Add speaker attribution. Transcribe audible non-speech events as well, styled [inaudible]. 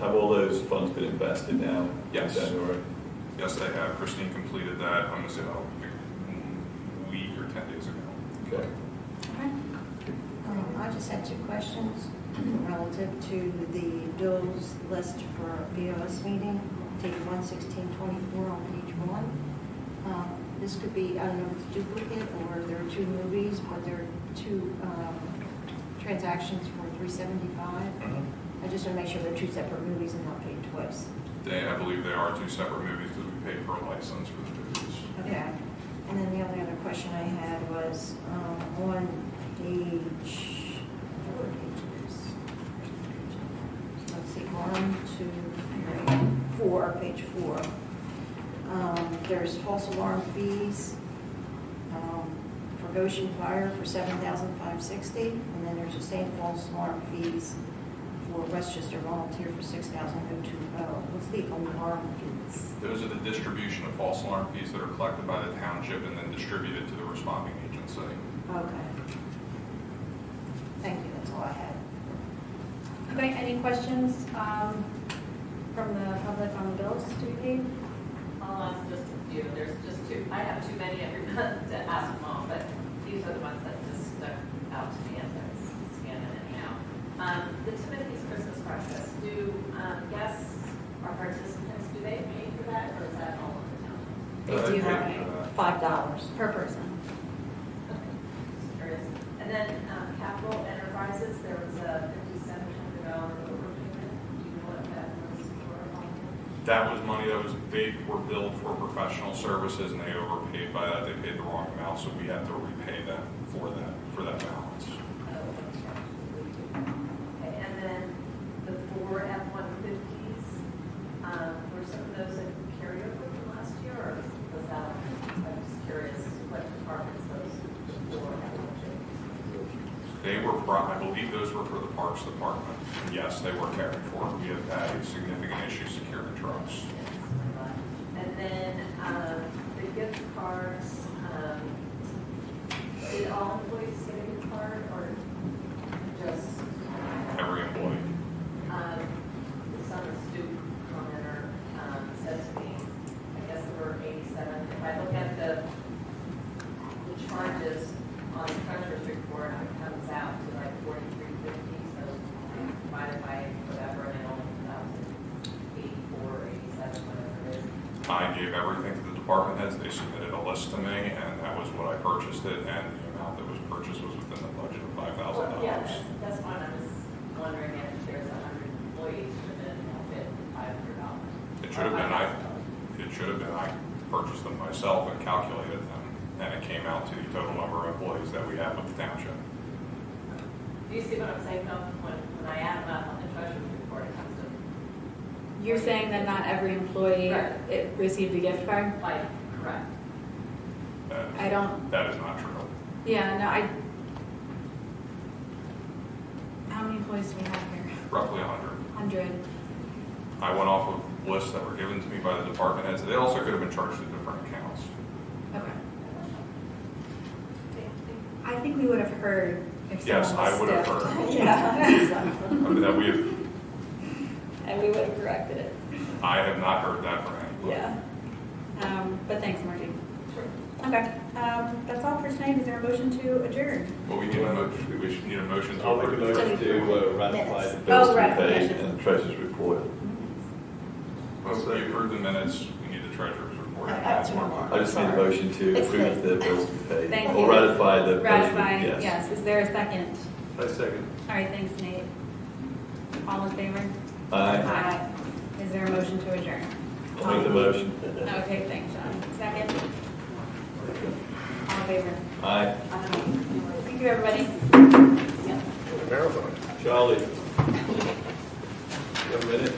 Speaker 1: have all those funds been invested now?
Speaker 2: Yes.
Speaker 1: In January?
Speaker 2: Yes, they have. Christine completed that, I'm gonna say about a week or ten days ago.
Speaker 1: Okay.
Speaker 3: Um, I just had two questions relative to the bills list for BOS meeting, date one sixteen twenty-four on page one. Um, This could be, I don't know if it's duplicate, or there are two movies, but there are two um, transactions for three seventy-five.
Speaker 2: Mm-hmm.
Speaker 3: I just want to make sure they're two separate movies and not paid twice.
Speaker 2: They, I believe they are two separate movies because we pay per license for the movies.
Speaker 3: Okay. And then the only other question I had was um, on page, four pages. Let's see, one, two, three, four, page four. Um, There's false alarm fees um, for Goshen Fire for $7,560. And then there's the same false alarm fees for Westchester Volunteer for $6,020. oh. What's the alarm fees?
Speaker 2: Those are the distribution of false alarm fees that are collected by the township and then distributed to the responding agency.
Speaker 3: Okay. Thank you, that's all I had.
Speaker 4: Okay, any questions um, from the public on the bills to be paid?
Speaker 5: I'll ask just a few, there's just two, I have too many every [laughs] month to ask them all, but these are the ones that just stuck out to me as I was scanning it now. Um, the Timothy's Christmas breakfast, do, um, guests or participants, do they pay for that, or is that all of the town?
Speaker 3: They
Speaker 2: Uh,
Speaker 3: do
Speaker 2: thank you
Speaker 3: have
Speaker 2: for that.
Speaker 3: five dollars per person.
Speaker 5: Just curious. And then, um, Capital Enterprises, there was a fifty-seven hundred dollar overpayment, do you know what that was for?
Speaker 2: That was money that was, they were billed for professional services and they overpaid by that. They paid the wrong amount, so we had to repay them for that, for that balance.
Speaker 5: Okay, And then the four F-150s, um, were some of those that carried over from last year, or was that, I'm just curious, what departments those four F-150s?
Speaker 2: They were, brought- I believe those were for the Parks Department. And Yes, they were carried forward. We have had a significant issue securing trucks.
Speaker 5: And then, um, the gift cards, um, did all employees get a gift card, or just?
Speaker 2: Every employee.
Speaker 5: um, some student commenter um, said to me, I guess there were 87, if I look at the, the charges on the treasurer's report, it comes out to like 4350, so divided by whatever, and it only comes out to 84, or 87, whatever it is.
Speaker 2: I gave everything to the department heads, they submitted a list to me, and that was what I purchased it, and the amount that was purchased was within the budget of five thousand
Speaker 5: Well, Yeah,
Speaker 2: dollars.
Speaker 5: that's, that's one, I was wondering if there's 100 employees, should it have been $500?
Speaker 2: It should have been, I, it should have been, I purchased them myself and calculated them, and it came out to the total number of employees that we have with the township.
Speaker 5: Do you see what I'm saying, though? When, when I add them up on the treasurer's report, it comes to,
Speaker 4: You're saying that not every employee
Speaker 5: Right.
Speaker 4: it received a gift card?
Speaker 5: like, correct.
Speaker 2: That-
Speaker 4: I don't,
Speaker 2: That is not true.
Speaker 4: yeah, no, I. How many employees do we have here?
Speaker 2: Roughly a hundred.
Speaker 4: Hundred.
Speaker 2: I went off of lists that were given to me by the department heads, they also could have been charged to different accounts.
Speaker 4: Okay. I think we would have heard if someone was
Speaker 2: Yes,
Speaker 4: stiff.
Speaker 2: I would have
Speaker 4: [laughs]
Speaker 2: heard,
Speaker 3: Yeah.
Speaker 2: I mean, that we have,
Speaker 4: And we would have corrected it.
Speaker 2: I have not heard that from anybody.
Speaker 4: Yeah. Um, but thanks, Margie. Okay, um, that's all for tonight. Is there a motion to adjourn?
Speaker 2: Well, we need a motion, we should need a motion to
Speaker 1: I'll make a
Speaker 2: approve.
Speaker 1: motion to uh, ratify the
Speaker 3: Minutes.
Speaker 1: bills
Speaker 4: Oh,
Speaker 1: to be paid
Speaker 4: ratification.
Speaker 1: and treasurer's report.
Speaker 2: Once we approve the minutes, we need the treasurer's report.
Speaker 3: Uh,
Speaker 2: That's
Speaker 3: tomorrow.
Speaker 2: where
Speaker 1: I just need a motion to
Speaker 3: It's
Speaker 1: approve
Speaker 3: good.
Speaker 1: the bills to be paid.
Speaker 4: Thank
Speaker 1: Or
Speaker 4: you.
Speaker 1: ratify the. bills to be-
Speaker 4: Ratify, yes. Is there a second?
Speaker 1: I second.
Speaker 4: All right, thanks, Nate. All in favor?
Speaker 1: Aye.
Speaker 4: Aye. Is there a motion to adjourn?
Speaker 1: I'll make the
Speaker 4: [laughs]
Speaker 1: motion.
Speaker 4: Okay, thanks, John. Second? All in favor?
Speaker 1: Aye.
Speaker 4: Thank you, everybody. [laughs]
Speaker 1: Charlie. You have a minute?